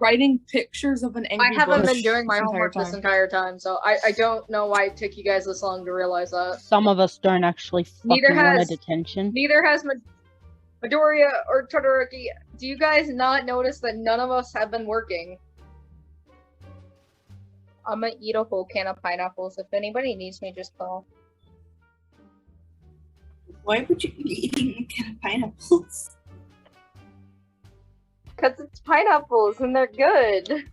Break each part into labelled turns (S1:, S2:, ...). S1: writing pictures of an angry.
S2: I haven't
S1: bush
S2: been doing my
S1: this entire
S2: homework this
S1: time.
S2: entire time, so I, I don't know why it took you guys this long to realize that.
S3: Some of us don't actually fucking
S2: Neither
S3: want
S2: has-
S3: a detention.
S2: Neither has Ma- Midoriya or Todoroki. Do you guys not notice that none of us have been working? I'm gonna eat a whole can of pineapples. If anybody needs me, just call.
S4: Why would you be eating a can of pineapples?
S2: Because it's pineapples and they're good.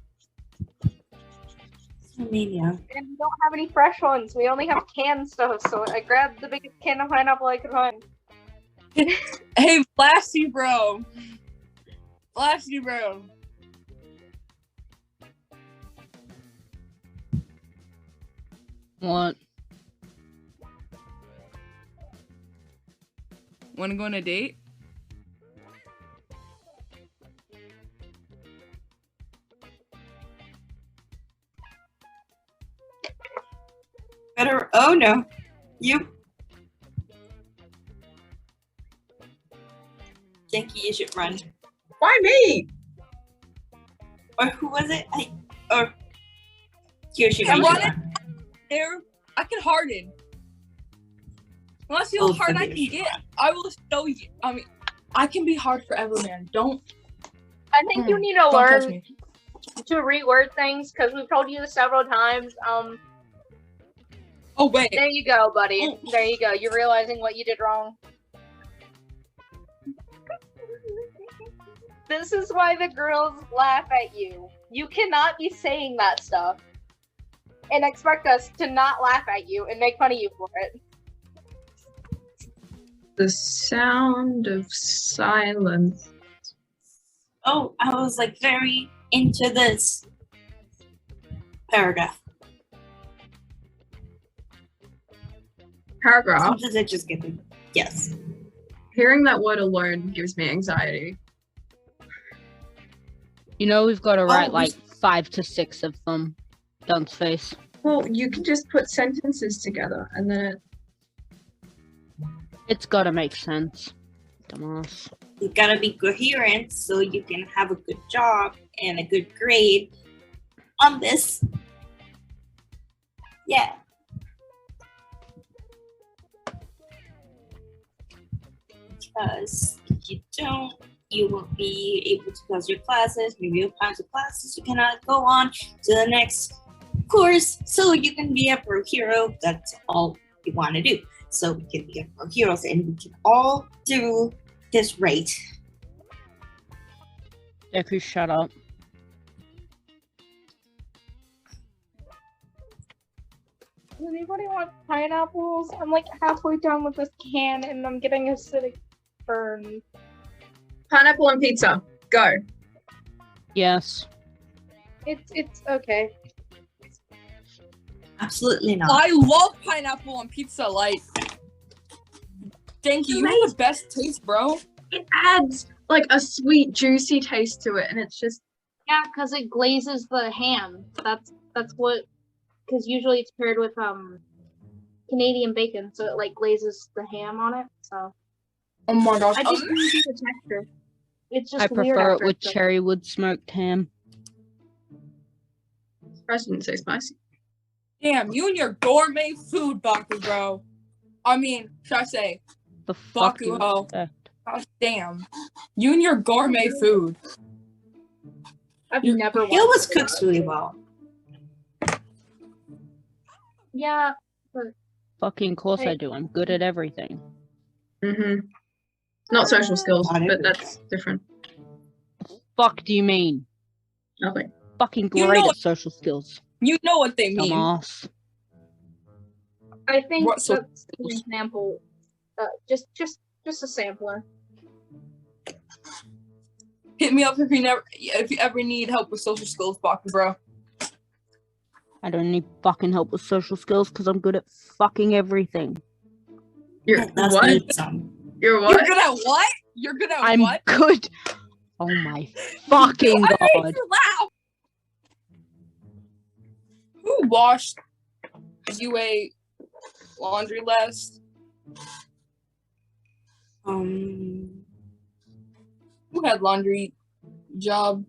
S4: So mania.
S2: And we don't have any fresh ones. We only have canned stuff, so I grabbed the biggest can of pineapple I could find.
S1: Hey, Blasty Bro. Blasty Bro.
S3: What?
S1: Want to go on a date?
S4: Better. Oh no. You. Yankee, you should run.
S5: Why me?
S4: Or who was it? I. Or. Kyoshi,
S1: I
S4: you should
S1: want it.
S4: run.
S1: There, I can harden. Want to see
S4: Oh,
S1: how hard I
S4: forget
S1: can
S4: your
S1: get? I will show you. I mean, I can be hard forever, man. Don't
S2: I think you need to
S1: Hmm. don't touch
S2: learn
S1: me.
S2: to reword things because we've told you this several times. Um,
S1: Oh wait,
S2: there you go, buddy.
S1: Oh.
S2: There you go. You're realizing what you did wrong. This is why the girls laugh at you. You cannot be saying that stuff and expect us to not laugh at you and make fun of you for it.
S5: The sound of silence.
S4: Oh, I was like very into this paragraph.
S5: Paragraph.
S4: Sometimes I just get the yes.
S5: Hearing that word alone gives me anxiety.
S3: You know we've got to write
S4: we-
S3: like five to six of them. Dunce face.
S5: Well, you can just put sentences together and then it,
S3: It's got to make sense. Dumbass.
S4: You gotta be coherent so you can have a good job and a good grade on this. Yeah. Because if you don't, you won't be able to pass your classes. Maybe you'll pass your classes. You cannot go on to the next course. So you can be a pro hero. That's all you want to do. So we can be a pro heroes and we can all do this right.
S3: Deku, shut up.
S2: Does anybody want pineapples? I'm like halfway done with this can and I'm getting acidic burn.
S5: pineapple and pizza. Go.
S3: Yes.
S2: It's it's okay.
S4: Absolutely not.
S1: I love pineapple on pizza. Like, thank you. You have the best taste, bro.
S5: It adds like a sweet, juicy taste to it, and it's just
S2: Yeah, because it glazes the ham. That's that's what because usually it's paired with um Canadian bacon, so it like glazes the ham on it. So
S1: Oh my gosh.
S2: I just really like the texture. It's just
S3: I
S2: weird
S3: prefer it
S2: after
S3: with
S2: it's done.
S3: cherry wood smoked ham.
S5: present so spicy.
S1: Damn, you and your gourmet food, Baku, bro. I mean, should I say,
S3: The fuck
S1: Baku
S3: you
S1: ho.
S3: expect?
S1: Gosh damn. You and your gourmet food.
S2: I've
S1: you-
S2: never.
S4: He
S2: wanted
S4: always
S2: to
S4: cooks
S2: do that.
S4: really well.
S2: Yeah,
S3: Fucking course I
S2: Right.
S3: do. I'm good at everything.
S5: Mm-hmm. Not social skills,
S4: Not
S5: but
S4: everything.
S5: that's different.
S3: Fuck do you mean?
S5: Nothing.
S3: Fucking
S1: You
S3: great
S1: know-
S3: at social skills.
S1: You know what they mean.
S3: Dumbass.
S2: I think
S1: What sort
S2: that's an example. Uh, just just just a sampler.
S1: Hit me up if you never if you ever need help with social skills, Baku, bro.
S3: I don't need fucking help with social skills because I'm good at fucking everything.
S5: You're
S4: That's
S5: what?
S4: me, son.
S5: You're
S1: You're
S5: what?
S1: good at what? You're good at
S3: I'm
S1: what?
S3: good. Oh my fucking
S1: I made
S3: god.
S1: you laugh. Who washed UA laundry last?
S4: Um,
S1: Who had laundry job?